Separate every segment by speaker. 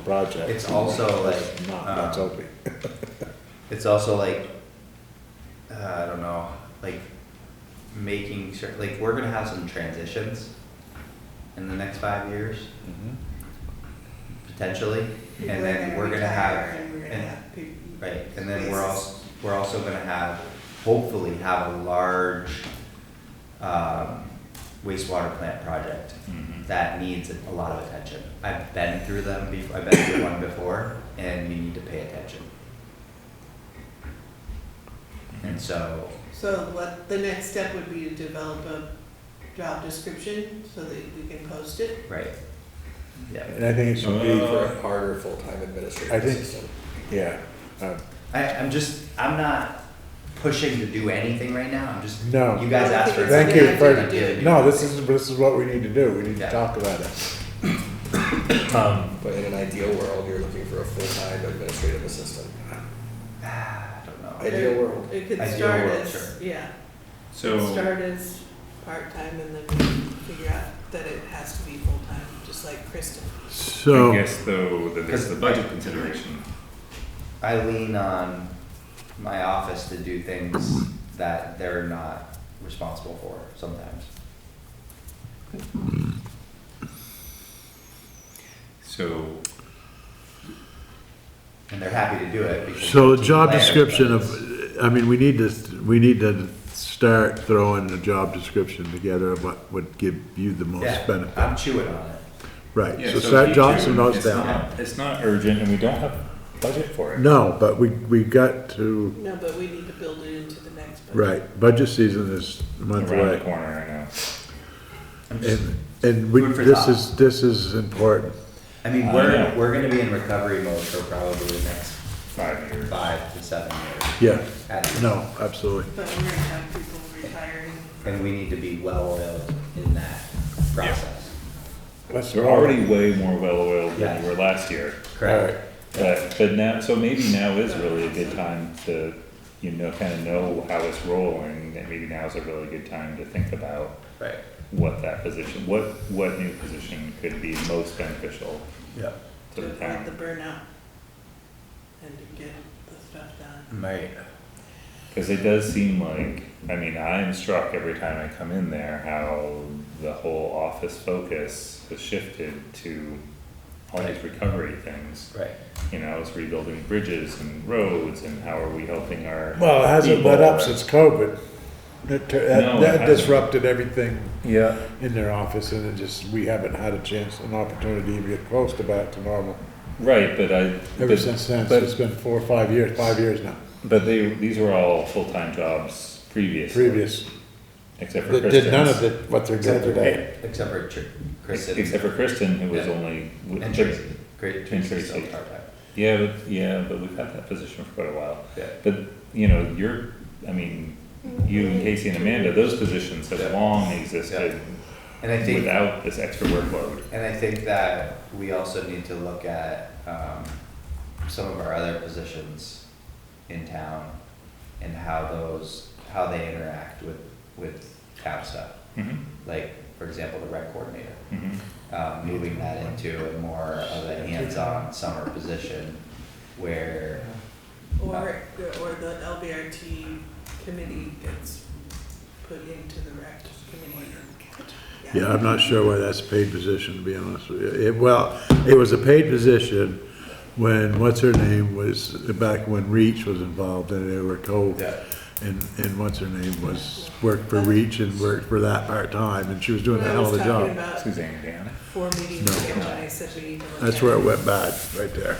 Speaker 1: project.
Speaker 2: It's also like,
Speaker 1: Not, that's
Speaker 2: um,
Speaker 1: open.
Speaker 2: It's also like, uh, I don't know, like making sure, like we're gonna have some transitions in the next five years, Mm-hmm. potentially. And then we're gonna have,
Speaker 3: retire and we're gonna
Speaker 2: and-
Speaker 3: have peop-
Speaker 2: right, and then we're
Speaker 3: spaces.
Speaker 2: also, we're also gonna have, hopefully have a large um, wastewater plant project
Speaker 1: Mhm.
Speaker 2: that needs a lot of attention. I've been through them, bef- I've been through one before, and you need to pay attention. And so,
Speaker 3: So what, the next step would be to develop a job description so that we can post it?
Speaker 2: right, yeah.
Speaker 1: And I think it should be
Speaker 4: For
Speaker 1: for,
Speaker 4: a harder full-time administrative
Speaker 1: I think-
Speaker 4: assistant.
Speaker 1: yeah, uh,
Speaker 2: I, I'm just, I'm not pushing to do anything right now, I'm just,
Speaker 1: No.
Speaker 2: you guys asked for. it.
Speaker 1: Thank you for-
Speaker 2: I'm giving you-
Speaker 1: no, this is, this is what we need to do, we need to
Speaker 2: Yeah.
Speaker 1: talk about it.
Speaker 4: Um, But in an ideal world, you're looking for a full-time administrative assistant.
Speaker 2: Ah, I don't know.
Speaker 4: Ideal world.
Speaker 3: It could
Speaker 2: Ideal
Speaker 3: start
Speaker 2: world,
Speaker 3: as,
Speaker 2: sure.
Speaker 3: yeah,
Speaker 5: So,
Speaker 3: start as part-time and then figure out that it has to be full-time, just like Kristen.
Speaker 5: I
Speaker 1: So,
Speaker 5: guess though, that there's the budget consideration.
Speaker 2: I lean on my office to do things that they're not responsible for sometimes.
Speaker 5: So,
Speaker 2: And they're happy to do it because.
Speaker 1: so
Speaker 2: team
Speaker 1: job
Speaker 2: player,
Speaker 1: description
Speaker 2: but
Speaker 1: of, I mean, we need to, we need to start throwing the job description together of what would give you the most
Speaker 2: Yeah, Um,
Speaker 1: benefit.
Speaker 2: I'm chewing on it.
Speaker 1: Right,
Speaker 5: yeah,
Speaker 1: so
Speaker 5: so
Speaker 1: start
Speaker 5: keep
Speaker 1: Johnson
Speaker 5: doing-
Speaker 1: notes
Speaker 5: it's
Speaker 1: down.
Speaker 5: not- It's not urgent and we don't have budget for it.
Speaker 1: No, but we, we got to,
Speaker 3: No, but we need to build it into the next budget.
Speaker 1: right, budget season is a month
Speaker 5: Around the
Speaker 1: away.
Speaker 5: corner, I know.
Speaker 2: I'm just,
Speaker 1: And, and we,
Speaker 2: Food for
Speaker 1: this
Speaker 2: thought.
Speaker 1: is, this is important.
Speaker 2: I mean,
Speaker 5: I
Speaker 2: we're,
Speaker 5: know.
Speaker 2: we're gonna be in recovery mode for probably the next
Speaker 5: Five years.
Speaker 2: five to seven years.
Speaker 1: Yeah,
Speaker 2: at least.
Speaker 1: no, absolutely.
Speaker 3: But we're gonna have people retiring.
Speaker 2: And we need to be well-oiled in that process.
Speaker 5: We're already way more well-oiled than
Speaker 2: Yeah.
Speaker 5: we were last year.
Speaker 2: Correct?
Speaker 5: But, but now, so maybe now is really a good time to, you know, kind of know how it's rolling, and maybe now is a really good time to think about
Speaker 2: Right.
Speaker 5: what that position, what, what new position could be most beneficial
Speaker 2: Yeah.
Speaker 5: to the
Speaker 3: Like the
Speaker 5: town.
Speaker 3: burnout. And to get the stuff done.
Speaker 2: Right.
Speaker 5: Cause it does seem like, I mean, I'm struck every time I come in there, how the whole office focus has shifted to all these recovery things.
Speaker 2: Right.
Speaker 5: You know, it's rebuilding bridges and roads, and how are we helping our
Speaker 1: Well, it hasn't let up since COVID. That, tur- that-
Speaker 5: No, it
Speaker 1: that
Speaker 5: hasn't.
Speaker 1: disrupted everything
Speaker 5: Yeah.
Speaker 1: in their office and it just, we haven't had a chance, an opportunity to get close to back to normal.
Speaker 5: Right, but I.
Speaker 1: Ever
Speaker 5: but-
Speaker 1: since then, so
Speaker 5: but-
Speaker 1: it's been four, or five years, five years now,
Speaker 5: But they, these were all full-time jobs previously.
Speaker 1: previous.
Speaker 5: Except for
Speaker 1: That
Speaker 5: Kristen's.
Speaker 1: did none of the, what they're doing today.
Speaker 2: Except for Tr- Kristen.
Speaker 5: Except for Kristen, who was
Speaker 2: Yeah.
Speaker 5: only. w-
Speaker 2: And
Speaker 5: but-
Speaker 2: Tracy. Great,
Speaker 5: And
Speaker 2: Tracy's still
Speaker 5: Tracy.
Speaker 2: part-time.
Speaker 5: Yeah, but, yeah, but we've had that position for quite a while.
Speaker 2: Yeah.
Speaker 5: But, you know, you're, I mean, you and Casey and Amanda, those positions
Speaker 2: Yeah.
Speaker 5: have long existed
Speaker 2: And I think,
Speaker 5: without this extra workload.
Speaker 2: and I think that we also need to look at, um, some of our other positions in town and how those, how they interact with, with town stuff.
Speaker 5: Mhm,
Speaker 2: Like, for example, the rec coordinator.
Speaker 5: mhm.
Speaker 2: um, moving that into a more of a hands-on summer position where,
Speaker 3: Or, or the LBRT committee gets put into the rec committee.
Speaker 1: Yeah, I'm not sure why that's a paid position, to be honest with you. It, well, it was a paid position when, what's her name, was, back when Reach was involved and they were co.
Speaker 2: Yeah.
Speaker 1: And, and what's her name was, worked for Reach and worked for that part-time and she was doing a
Speaker 3: When I
Speaker 1: hell of
Speaker 3: was
Speaker 1: a
Speaker 3: talking
Speaker 1: job.
Speaker 3: about
Speaker 5: Suzanne, Dan.
Speaker 3: four meetings ago, I said we need to look
Speaker 1: That's
Speaker 3: at
Speaker 1: where it went bad, right there.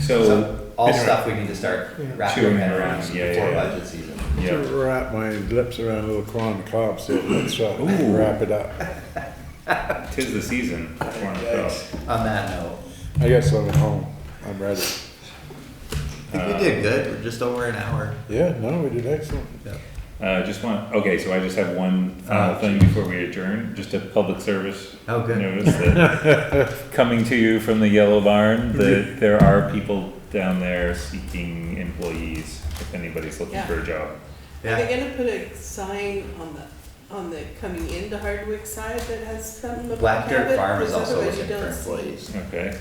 Speaker 5: So,
Speaker 2: so all stuff we need to start wrapping our
Speaker 5: Chewing
Speaker 2: head
Speaker 5: around,
Speaker 2: around
Speaker 5: yeah,
Speaker 2: before
Speaker 5: yeah.
Speaker 2: budget season.
Speaker 5: yeah,
Speaker 1: To Wrap my lips around a little corn cob, so let's uh, wrap it up.
Speaker 5: tis the season. for corn on the cob.
Speaker 2: On that note,
Speaker 1: I guess I'm at home. I'm ready.
Speaker 2: I think we did good, we're just over an hour.
Speaker 1: Yeah, no, we did excellent.
Speaker 5: Uh, just one, okay, so I just have one
Speaker 2: Oh,
Speaker 5: final thing before we adjourn, just a public service.
Speaker 2: Oh, good.
Speaker 5: Notice that, coming to you from the Yellow Barn, that there are people down there seeking employees, if anybody's looking
Speaker 3: Yeah.
Speaker 5: for a job.
Speaker 3: Are
Speaker 2: Yeah,
Speaker 3: they gonna put a sign on the, on the coming into Hardwick side that has something about
Speaker 2: Black Dirt
Speaker 3: Cabot?
Speaker 2: Farm is
Speaker 3: Because
Speaker 2: also
Speaker 3: otherwise you
Speaker 2: looking for
Speaker 3: don't see-
Speaker 2: employees.
Speaker 5: Okay,